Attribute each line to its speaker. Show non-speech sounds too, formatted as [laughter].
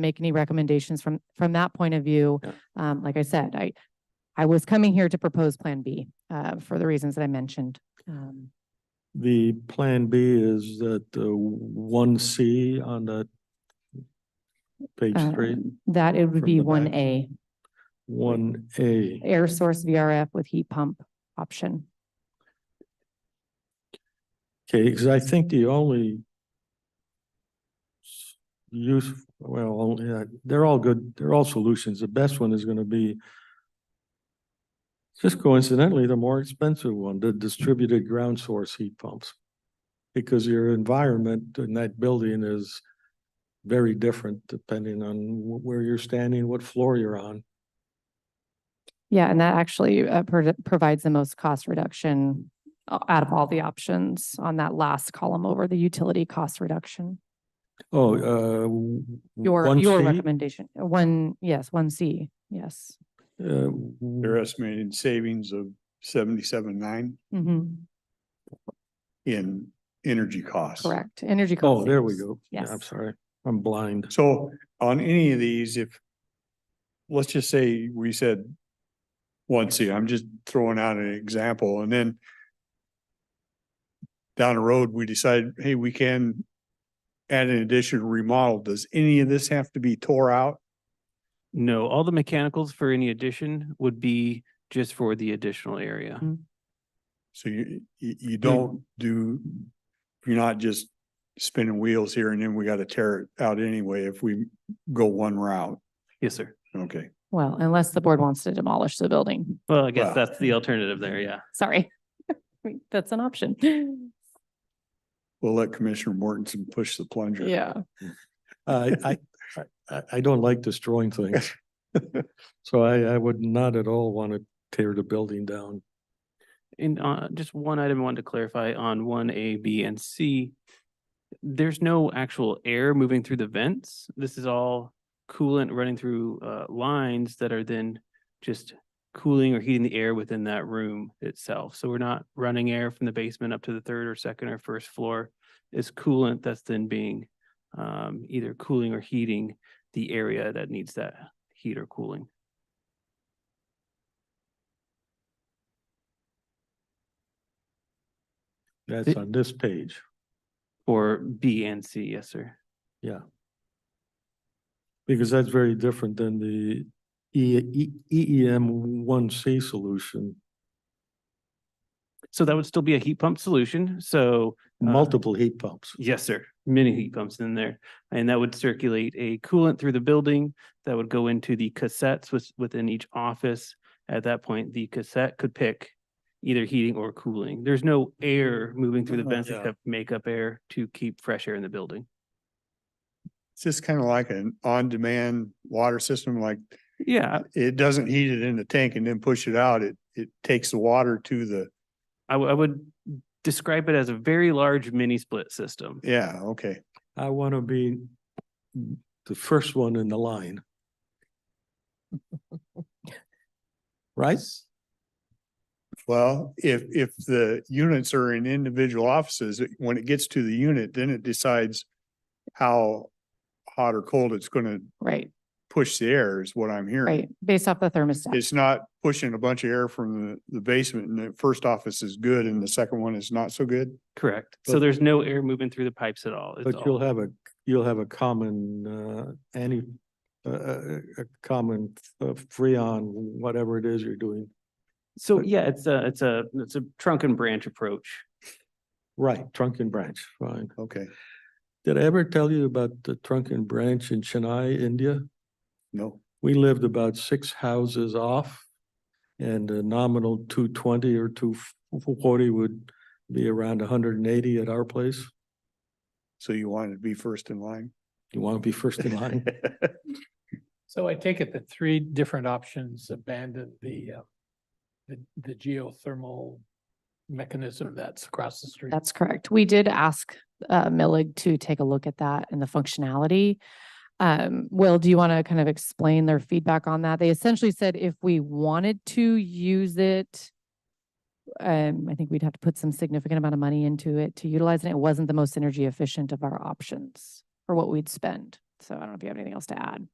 Speaker 1: make any recommendations from, from that point of view.
Speaker 2: Yeah.
Speaker 1: Um, like I said, I, I was coming here to propose Plan B, uh, for the reasons that I mentioned. Um,
Speaker 2: The plan B is that uh, one C on that page three,
Speaker 1: um, That it would
Speaker 2: From
Speaker 1: be
Speaker 2: the back.
Speaker 1: one A,
Speaker 2: one A.
Speaker 1: air source VRF with heat pump option.
Speaker 2: Okay, because I think the only s- use, well, only, uh, they're all good, they're all solutions. The best one is going to be just coincidentally, the more expensive one, the distributed ground source heat pumps. Because your environment in that building is very different depending on wh- where you're standing, what floor you're on.
Speaker 1: Yeah, and that actually uh, pro- provides the most cost reduction uh, out of all the options on that last column over the utility cost reduction.
Speaker 2: Oh, uh. w-
Speaker 1: Your,
Speaker 2: one
Speaker 1: your
Speaker 2: C,
Speaker 1: recommendation, uh, one, yes, one C, yes.
Speaker 2: uh, w-
Speaker 3: They're estimating savings of seventy-seven nine
Speaker 1: hmm
Speaker 3: in energy costs.
Speaker 1: correct. Energy. cost
Speaker 2: Oh, there we
Speaker 1: savings.
Speaker 2: go. Yeah, I'm
Speaker 1: Yes.
Speaker 2: sorry. I'm blind.
Speaker 3: So on any of these, if, let's just say we said one C, I'm just throwing out an example, and then down the road, we decide, hey, we can add an additional remodel. Does any of this have to be tore out?
Speaker 4: No, all the mechanicals for any addition would be just for the additional area.
Speaker 1: Mm.
Speaker 3: So you, you, you don't do, you're not just spinning wheels here and then we gotta tear it out anyway if we go one route.
Speaker 4: Yes, sir.
Speaker 3: Okay.
Speaker 1: Well, unless the board wants to demolish the building,
Speaker 4: Well, I guess
Speaker 3: Wow.
Speaker 4: that's the alternative there, yeah.
Speaker 1: sorry. [laughs] That's an option.
Speaker 3: We'll let Commissioner Mortensen push the plunger.
Speaker 1: Yeah.
Speaker 4: [laughs]
Speaker 2: I, I, I- I, I don't like destroying things. So I, I would not at all want to tear the building down.
Speaker 4: And uh, just one item I wanted to clarify on one A, B, and C. There's no actual air moving through the vents. This is all coolant running through uh, lines that are then just cooling or heating the air within that room itself. So we're not running air from the basement up to the third or second or first floor. It's coolant that's then being um, either cooling or heating the area that needs that heat or cooling.
Speaker 2: That's
Speaker 4: Th-
Speaker 2: on this page.
Speaker 4: Or B and C, yes, sir.
Speaker 2: Because that's very different than the E, E, EEM one C solution,
Speaker 4: So that would still be a heat pump solution. So Uh,
Speaker 2: multiple heat pumps.
Speaker 4: Yes, sir. Mini heat pumps in there. And that would circulate a coolant through the building that would go into the cassettes with, within each office. At that point, the cassette could pick either heating or cooling. There's no air moving through the
Speaker 2: Uh,
Speaker 4: vents
Speaker 2: yeah.
Speaker 4: except makeup air to keep fresh air in the building.
Speaker 3: It's just kind of like an on-demand water system, like
Speaker 4: Yeah,
Speaker 3: it doesn't heat it in the tank and then push it out. It, it takes the water to the,
Speaker 4: I, w- I would describe it as a very large mini split system.
Speaker 3: yeah, okay.
Speaker 2: I want to be the first one in the
Speaker 4: [laughs]
Speaker 2: line. Right?
Speaker 3: Well, if, if the units are in individual offices, it- when it gets to the unit, then it decides how hot or cold it's gonna
Speaker 1: Right,
Speaker 3: push the air is what I'm hearing.
Speaker 1: right. Based off the thermostat.
Speaker 3: It's not pushing a bunch of air from the, the basement and the first office is good and the second one is not so good.
Speaker 4: Correct.
Speaker 2: But-
Speaker 4: So there's no air moving through the pipes at all. It's
Speaker 2: But
Speaker 4: all-
Speaker 2: you'll have a, you'll have a common, uh, any, uh, uh, a common uh, freon, whatever it is you're doing.
Speaker 4: So
Speaker 2: but-
Speaker 4: yeah, it's a, it's a, it's a trunk and branch approach.
Speaker 2: Right, trunk and branch, fine.
Speaker 3: Okay,
Speaker 2: Did I ever tell you about the trunk and branch in Chennai, India?
Speaker 3: no,
Speaker 2: We lived about six houses off. And the nominal two twenty or two forty would be around hundred and eighty at our place.
Speaker 3: so you wanted to be first in line?
Speaker 2: You want to be first in line?
Speaker 5: So I take it the three different options abandon the, uh, the, the geothermal mechanism that's across the street.
Speaker 1: That's correct. We did ask uh Millig to take a look at that and the functionality. Um, Will, do you want to kind of explain their feedback on that? They essentially said if we wanted to use it, um, I think we'd have to put some significant amount of money into it to utilize it. It wasn't the most energy efficient of our options for what we'd spend. So I don't know if you have anything else to add.